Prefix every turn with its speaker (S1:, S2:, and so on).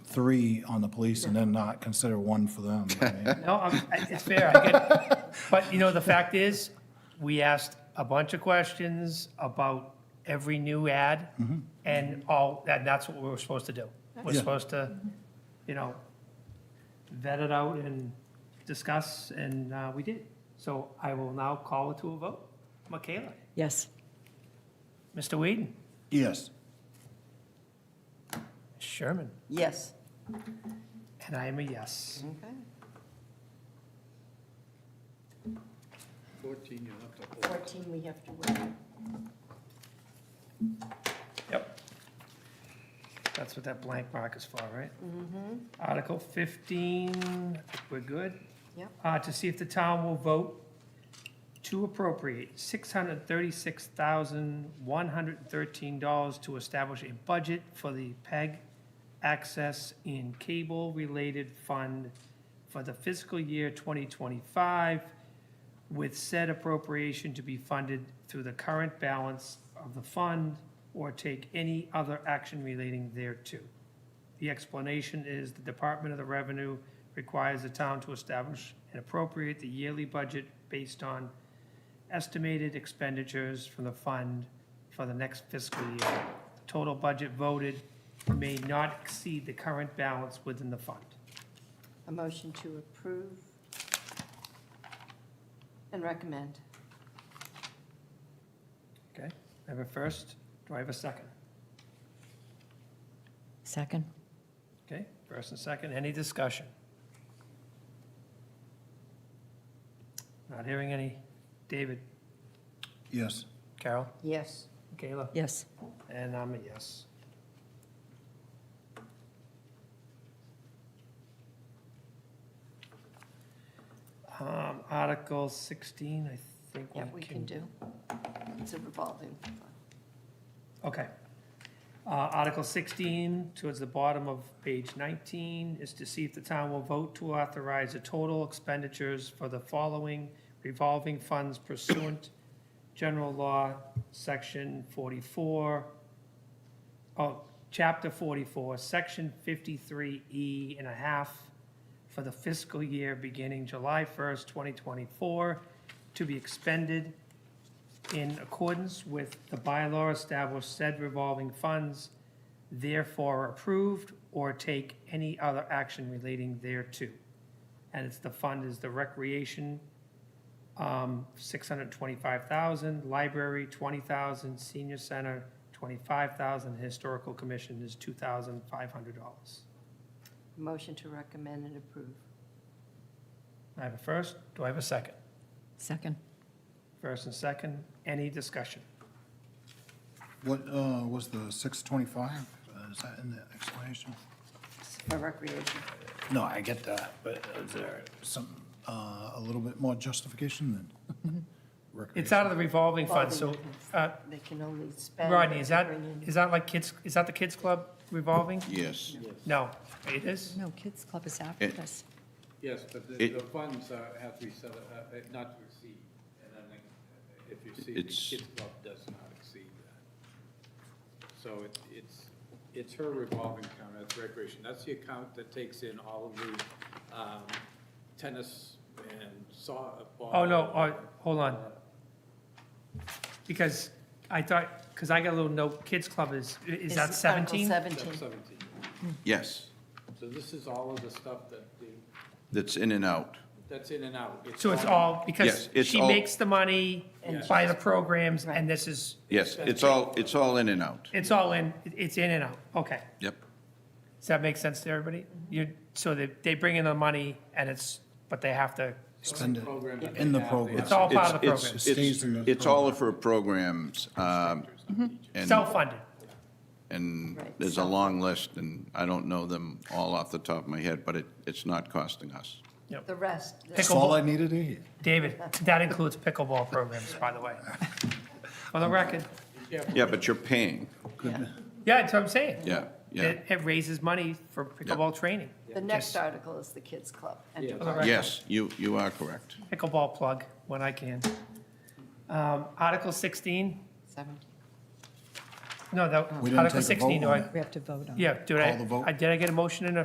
S1: three on the police and then not consider one for them. I mean,
S2: No, I'm- I- it's fair, I get it. But, you know, the fact is, we asked a bunch of questions about every new ad, and all, and that's what we were supposed to do. We're
S1: Yeah.
S2: supposed to, you know, vet it out and discuss, and uh, we did. So I will now call it to a vote. Michaela?
S3: Yes.
S2: Mr. Whedon?
S1: Yes,
S2: Sherman?
S4: Yes.
S2: And I am a yes.
S4: Okay.
S5: 14, you have to hold.
S4: 14, we have to wait.
S2: Yep. That's what that blank mark is for, right?
S4: Mm-hmm.
S2: Article 15, I think we're good.
S4: Yep.
S2: Uh, To see if the town will vote to appropriate $636,113 to establish a budget for the E PEG access and cable-related fund for the fiscal year 2025, with said appropriation to be funded through the current balance of the fund or take any other action relating thereto. The explanation is the Department of the Revenue requires the town to establish and appropriate the yearly budget based on estimated expenditures from the fund for the next fiscal year. Total budget voted may not exceed the current balance within the fund.
S4: A motion to approve and recommend.
S2: Okay, I have a first, do I have a second?
S3: Second?
S2: Okay, first and second, any discussion? Not hearing any. David,
S1: yes.
S2: Carol,
S4: Yes.
S2: Kayla,
S3: Yes.
S2: and I'm a yes. Um, Article 16, I think
S4: Yep, we can do. It's a revolving. fund.
S2: Okay. Uh, Article 16, towards the bottom of page 19, is to see if the town will vote to authorize the total expenditures for the following revolving funds pursuant General Law, Section 44, oh, Chapter 44, Section 53E and a half for the fiscal year beginning July 1st, 2024, to be expended in accordance with the bylaw establish said revolving funds, therefore approved, or take any other action relating thereto. And it's, the fund is the recreation, um, six hundred twenty-five thousand, library, twenty thousand, senior center, twenty-five thousand, historical commission is two thousand five hundred dollars.
S4: Motion to recommend and approve.
S2: I have a first, do I have a second?
S3: Second?
S2: First and second, any discussion?
S1: What, uh, was the six twenty-five? Uh, Is that in the explanation?
S4: For recreation.
S1: No, I get that, but is there some, uh, a little bit more justification than?
S2: It's out of the revolving fund, so,
S4: Revolving
S2: uh,
S4: They can only spend.
S2: Rodney, is that,
S4: bring in-
S2: is that like kids, is that the kids' club revolving?
S6: Yes,
S2: No, it is?
S3: No, Kids Club is after
S6: It-
S3: this.
S5: Yes, but the,
S6: It-
S5: the funds are, have to be set, uh, uh, not to exceed, and I think if you see, the
S6: It's-
S5: kids club does not exceed that. So it, it's, it's her revolving account, that's recreation, that's the account that takes in all of the, um, tennis and uh, softball.
S2: Oh, no, oh, hold on. Because I thought, because I got a little note, kids' club is, is that
S4: Article
S2: 17?
S5: Step
S4: 17.
S5: seventeen,
S6: yes,
S5: so this is all of the stuff that, the-
S6: that's in and out.
S5: that's in and out.
S2: So it's all, because
S6: Yes, it's
S2: she
S6: all-
S2: makes the money
S4: And
S2: by the programs, and
S4: Right.
S2: this is,
S6: Yes, it's all, it's all in and out.
S2: it's all in, it's in and out, okay.
S6: Yep,
S2: Does that make sense to everybody?
S4: Mm-hmm.
S2: You, so they, they bring in the money, and it's, but they have to,
S1: Spend it
S5: Program that
S1: in
S5: they
S1: the
S5: have, they
S1: program.
S2: it's all part of the
S6: It's-
S2: program,
S1: It stays
S6: it's,
S1: in the
S6: it's all of her programs, um,
S2: Mm-hmm.
S6: and,
S2: self-funded.
S6: and
S4: Right.
S6: there's a long list, and I don't know them all off the top of my head, but it, it's not costing us.
S4: The rest.
S1: That's all I needed to hear.
S2: David, that includes pickleball programs, by the way. For the record.
S6: Yeah, but you're paying,
S2: Yeah, that's what I'm saying.
S6: yeah, yeah,
S2: It, it raises money for pickleball training.
S4: The next article is the kids club. and
S5: Yeah.
S4: revolving.
S6: yes, you, you are correct.
S2: Pickleball plug when I can. Um, Article 16,
S4: 17.
S2: no, that,
S1: We didn't
S2: Article
S1: take a vote
S2: 16, do
S1: on
S2: I?
S1: it.
S3: We have to vote on it.
S2: Yeah, do I,
S1: Call the vote.
S2: I- did I get a motion in a